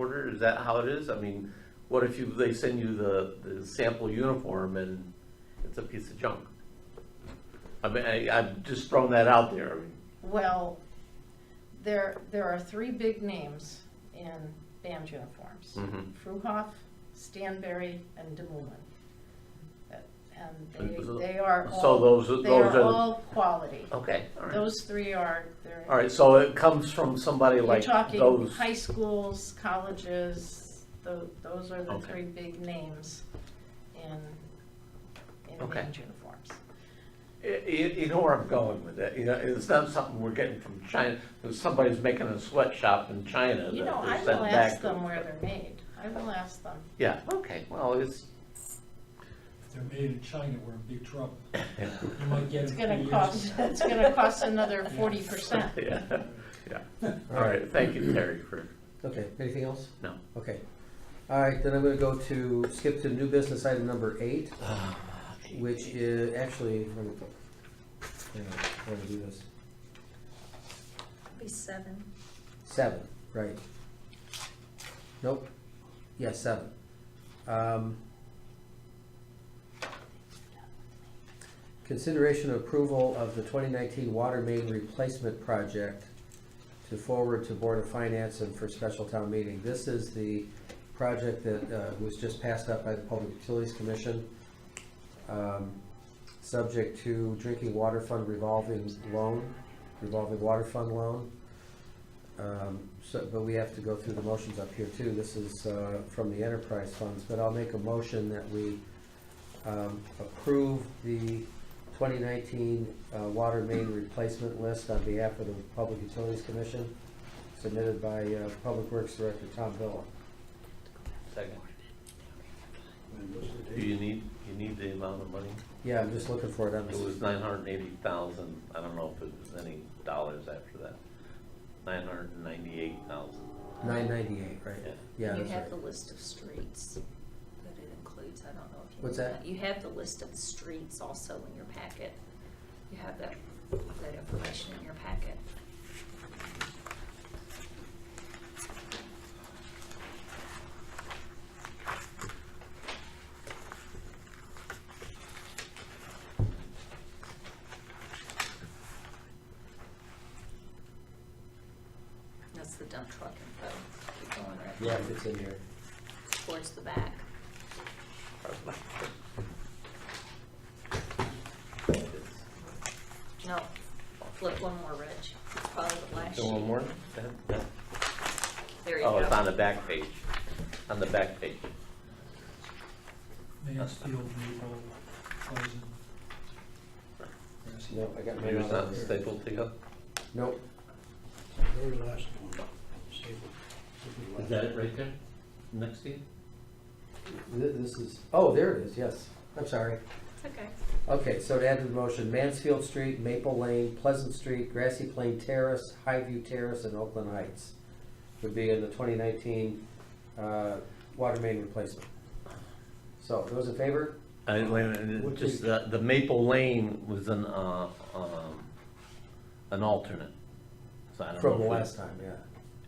order, is that how it is? I mean, what if you, they send you the, the sample uniform and it's a piece of junk? I mean, I, I've just thrown that out there, I mean, Well, there, there are three big names in band uniforms. Mhm. Fruhoff, Stanberry, and DeMullen. That- And So- they, they are so all, those- they those are are- all quality. okay, all right. Those three are, they're. All right, so it comes from somebody You're like talking those, high schools, colleges, tho- those are the Okay. three big names in, in Okay. band uniforms. you, you know where I'm going with that, you know, it's not something we're getting from China, somebody's making a sweatshop in China that You know, they're I sending will back ask to them us. where they're made. I will ask them. Yeah, okay, well, it's, If they're made in China, we're in big trouble. You might get It's them gonna three cost, inches. it's gonna cost another forty percent. yeah, yeah, all right, thank you, Terry, for, Okay, anything else? no. Okay. All right, then I'm gonna go to, skip to new business item number eight, which is, actually, let me, hang on, I'm gonna do this. Be seven. Seven, right. Nope. Yes, seven. Um, Consideration of approval of the twenty nineteen water main replacement project to forward to Board of Finance and for special town meeting. This is the project that uh, was just passed up by the Public Utilities Commission. um, Subject to drinking water fund revolving loan, revolving water fund loan. Um, So, but we have to go through the motions up here too. This is uh, from the enterprise funds, but I'll make a motion that we um, approve the 2019 uh, water main replacement list on behalf of the Public Utilities Commission submitted by uh, Public Works Director Tom Villa. Second. Do you need, you need the amount of money? Yeah, I'm just looking for it on It this. was nine hundred and eighty thousand, I don't know if it was any dollars after that. Nine hundred and ninety-eight thousand, 998, right? yeah. Yeah, You that's have the right. list of streets that it includes, I don't know if you. What's know that? You have the list of the streets also in your packet. You have that, that information in your packet. That's the dump truck info, keep going right Yeah, it's in here. towards the back. No, flip one more, Rich. It's Probably the last sheet. So one more? That- that- There you go. Oh, it's on the back page, on the back page. Mansfield, Naval, Pleasant. Grassy. No, I got my. Maybe it's not notes. stapled together? Nope, Very last one, save it. right there, next to you? Th- this is, oh, there it is, yes. I'm sorry. It's okay. Okay, so to add to the motion, Mansfield Street, Maple Lane, Pleasant Street, Grassy Plain Terrace, Highview Terrace, and Oakland Heights would be in the twenty nineteen, uh, water main replacement. So, those in favor? I, wait a minute, What just, page? the, the Maple Lane was an, uh, um, an alternate. So I don't know From the if we- last time, yeah.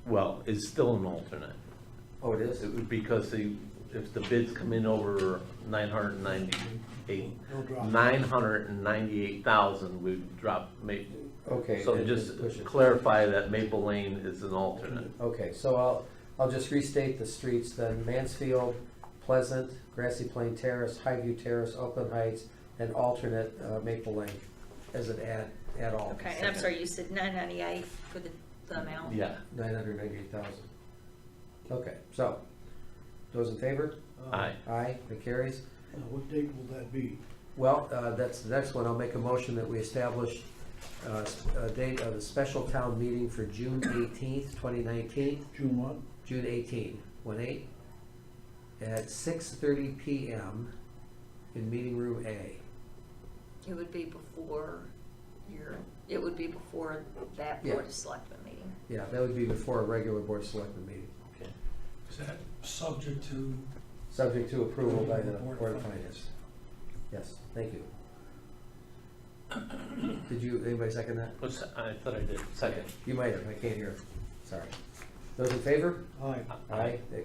Well, it's still an alternate. Oh, it is? It would- Because the, if the bids come in over nine hundred and ninety-eight, No drop. nine hundred and ninety-eight thousand, we drop Maple. Okay. So then just push it. clarify that Maple Lane is an alternate. Okay, so I'll, I'll just restate the streets then. Mansfield, Pleasant, Grassy Plain Terrace, Highview Terrace, Oakland Heights, and alternate, uh, Maple Lane as an add, add all. Okay, and I'm sorry, you said nine ninety-eight for the, the amount? Yeah, Nine hundred ninety-eight thousand. Okay, so, those in favor? Uh, aye. Aye, that carries. Now, what date will that be? Well, uh, that's the next one. I'll make a motion that we establish uh, s- a date of a special town meeting for June eighteenth, twenty nineteen, June what? June 18, one eight, at six thirty PM in meeting room A. It would be before your, it would be before that Yeah. board of selectmen meeting. Yeah, that would be before a regular board of selectmen meeting, Is that subject to, subject to approval by the Board of Finance. Yes, thank you. Did you, anybody second that? What's, I thought I did, second. You might have, I can't hear, sorry. Those in favor? Aye. Aye. That